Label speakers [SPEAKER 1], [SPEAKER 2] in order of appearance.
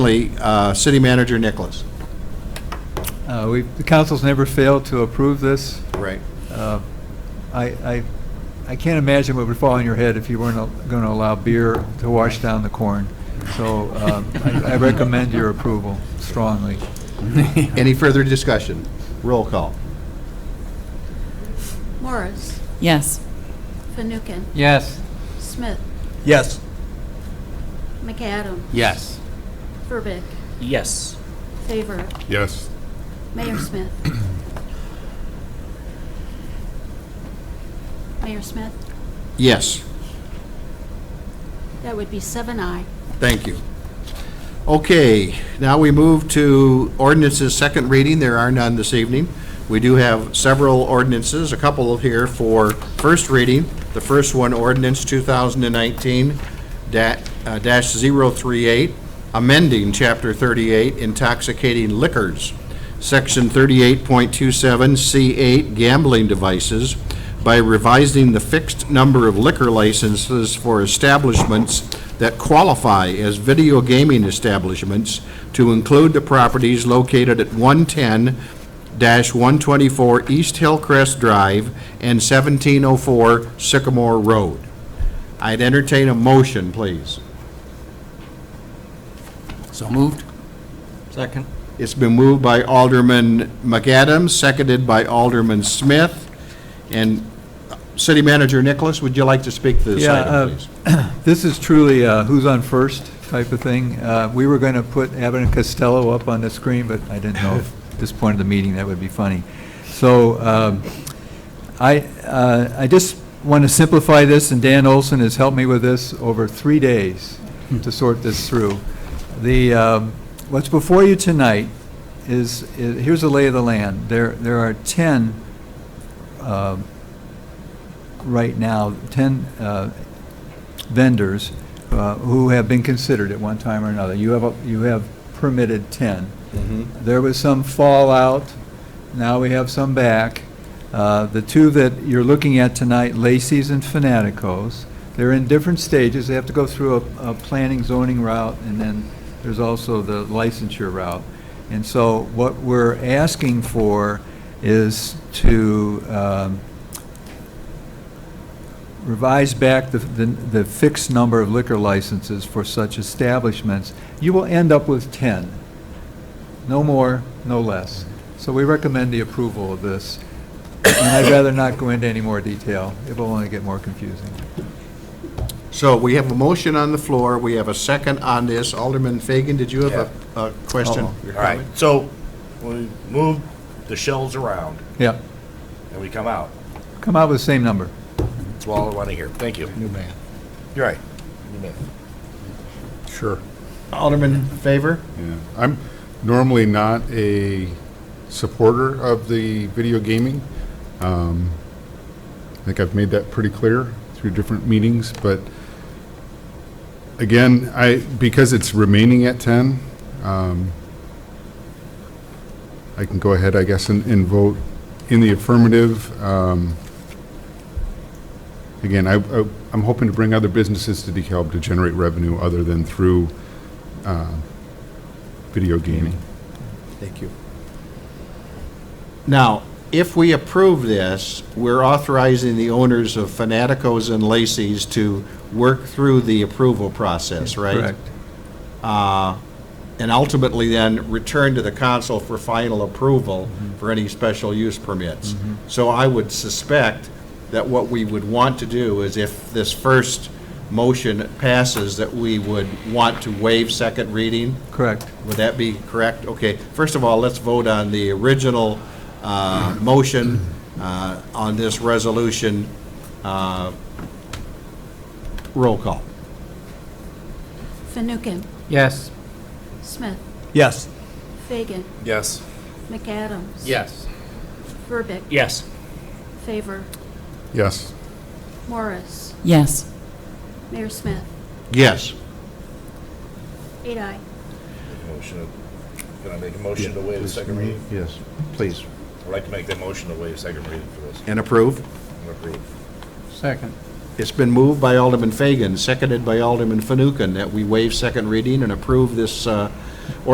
[SPEAKER 1] Finally, uh, City Manager Nicholas.
[SPEAKER 2] Uh, We, the council's never failed to approve this.
[SPEAKER 1] Right.
[SPEAKER 2] Uh, I, I, I can't imagine what would fall on your head if you weren't going to allow beer to wash down the corn. So um, I I recommend your approval strongly.
[SPEAKER 1] Any further discussion? Roll call.
[SPEAKER 3] Morris,
[SPEAKER 4] Yes.
[SPEAKER 3] Fanouken,
[SPEAKER 2] Yes.
[SPEAKER 3] Smith,
[SPEAKER 5] Yes.
[SPEAKER 3] McAdam,
[SPEAKER 5] Yes.
[SPEAKER 3] Verbic,
[SPEAKER 5] Yes.
[SPEAKER 3] Favor,
[SPEAKER 6] Yes.
[SPEAKER 3] Mayor Smith. Mayor Smith,
[SPEAKER 1] Yes,
[SPEAKER 3] that would be seven I.
[SPEAKER 1] thank you. Okay, now we move to ordinances, second reading. There are none this evening. We do have several ordinances, a couple of here for first reading. The first one, ordinance uh, 2019-038, amending Chapter 38 intoxicating liquors. Section 38.27C8 gambling devices by revising the fixed number of liquor licenses for establishments that qualify as video gaming establishments to include the properties located at 110-124 East Hillcrest Drive and 1704 Sycamore Road. I'd entertain a motion, please.
[SPEAKER 5] So moved. Second.
[SPEAKER 1] It's been moved by Alderman McAdams, seconded by Alderman Smith. And uh, City Manager Nicholas, would you like to speak to this
[SPEAKER 2] Yeah, uh,
[SPEAKER 1] item, please?
[SPEAKER 2] This is truly a who's on first type of thing. Uh, We were going to put Abbott and Costello up on the screen, but I didn't know if at this point of the meeting, that would be funny. So um, I, uh, I just want to simplify this, and Dan Olson has helped me with this over three days to sort this through. The, um, what's before you tonight is, i- here's the lay of the land. There, there are 10 um, right now, 10 uh, vendors uh, who have been considered at one time or another. You have, a- you have permitted 10. There was some fallout, now we have some back. Uh, The two that you're looking at tonight, Lacey's and Fanatico's, they're in different stages, they have to go through a, a planning zoning route, and then there's also the licensure route. And so what we're asking for is to um, revise back the, the the fixed number of liquor licenses for such establishments. You will end up with 10. No more, no less. So we recommend the approval of this, and I'd rather not go into any more detail. It will only get more confusing.
[SPEAKER 1] So we have a motion on the floor, we have a second on this. Alderman Fagan, did you have a, a question?
[SPEAKER 2] Uh-oh.
[SPEAKER 1] your
[SPEAKER 7] All right,
[SPEAKER 1] comment?
[SPEAKER 7] so we move the shells around
[SPEAKER 2] Yeah,
[SPEAKER 7] and we come out.
[SPEAKER 2] come out with the same number.
[SPEAKER 7] That's all I want to hear. Thank you.
[SPEAKER 1] New man.
[SPEAKER 7] You're right.
[SPEAKER 6] Sure.
[SPEAKER 1] Alderman Favor?
[SPEAKER 6] Yeah. I'm normally not a supporter of the video gaming. Um, I think I've made that pretty clear through different meetings, but again, I, because it's remaining at 10, um, I can go ahead, I guess, and, and vote in the affirmative. Um, Again, I, I- I'm hoping to bring other businesses to DeKalb to generate revenue other than through video gaming.
[SPEAKER 1] Thank you. Now, if we approve this, we're authorizing the owners of Fanatico's and Lacy's to work through the approval process, right?
[SPEAKER 2] Correct.
[SPEAKER 1] uh, and ultimately then return to the council for final approval for any special use permits. So I would suspect that what we would want to do is if this first motion passes, that we would want to waive second reading.
[SPEAKER 2] Correct.
[SPEAKER 1] Would that be correct? Okay, first of all, let's vote on the original uh, motion uh, on this resolution. Uh, Roll call.
[SPEAKER 3] Fanouken,
[SPEAKER 5] Yes.
[SPEAKER 3] Smith,
[SPEAKER 5] Yes.
[SPEAKER 3] Fagan,
[SPEAKER 7] Yes.
[SPEAKER 3] McAdams.
[SPEAKER 5] Yes.
[SPEAKER 3] Verbic,
[SPEAKER 5] Yes.
[SPEAKER 3] Favor,
[SPEAKER 6] Yes.
[SPEAKER 3] Morris,
[SPEAKER 4] Yes.
[SPEAKER 3] Mayor Smith,
[SPEAKER 1] Yes.
[SPEAKER 3] eight I.
[SPEAKER 7] Motion, to- can I make a motion to waive the second reading?
[SPEAKER 1] Yes, please.
[SPEAKER 7] I'd like to make that motion to waive second reading for this.
[SPEAKER 1] And approve?
[SPEAKER 7] I'm approved.
[SPEAKER 5] Second.
[SPEAKER 1] It's been moved by Alderman Fagan, seconded by Alderman Fanouken, that we waive second reading and approve this uh, or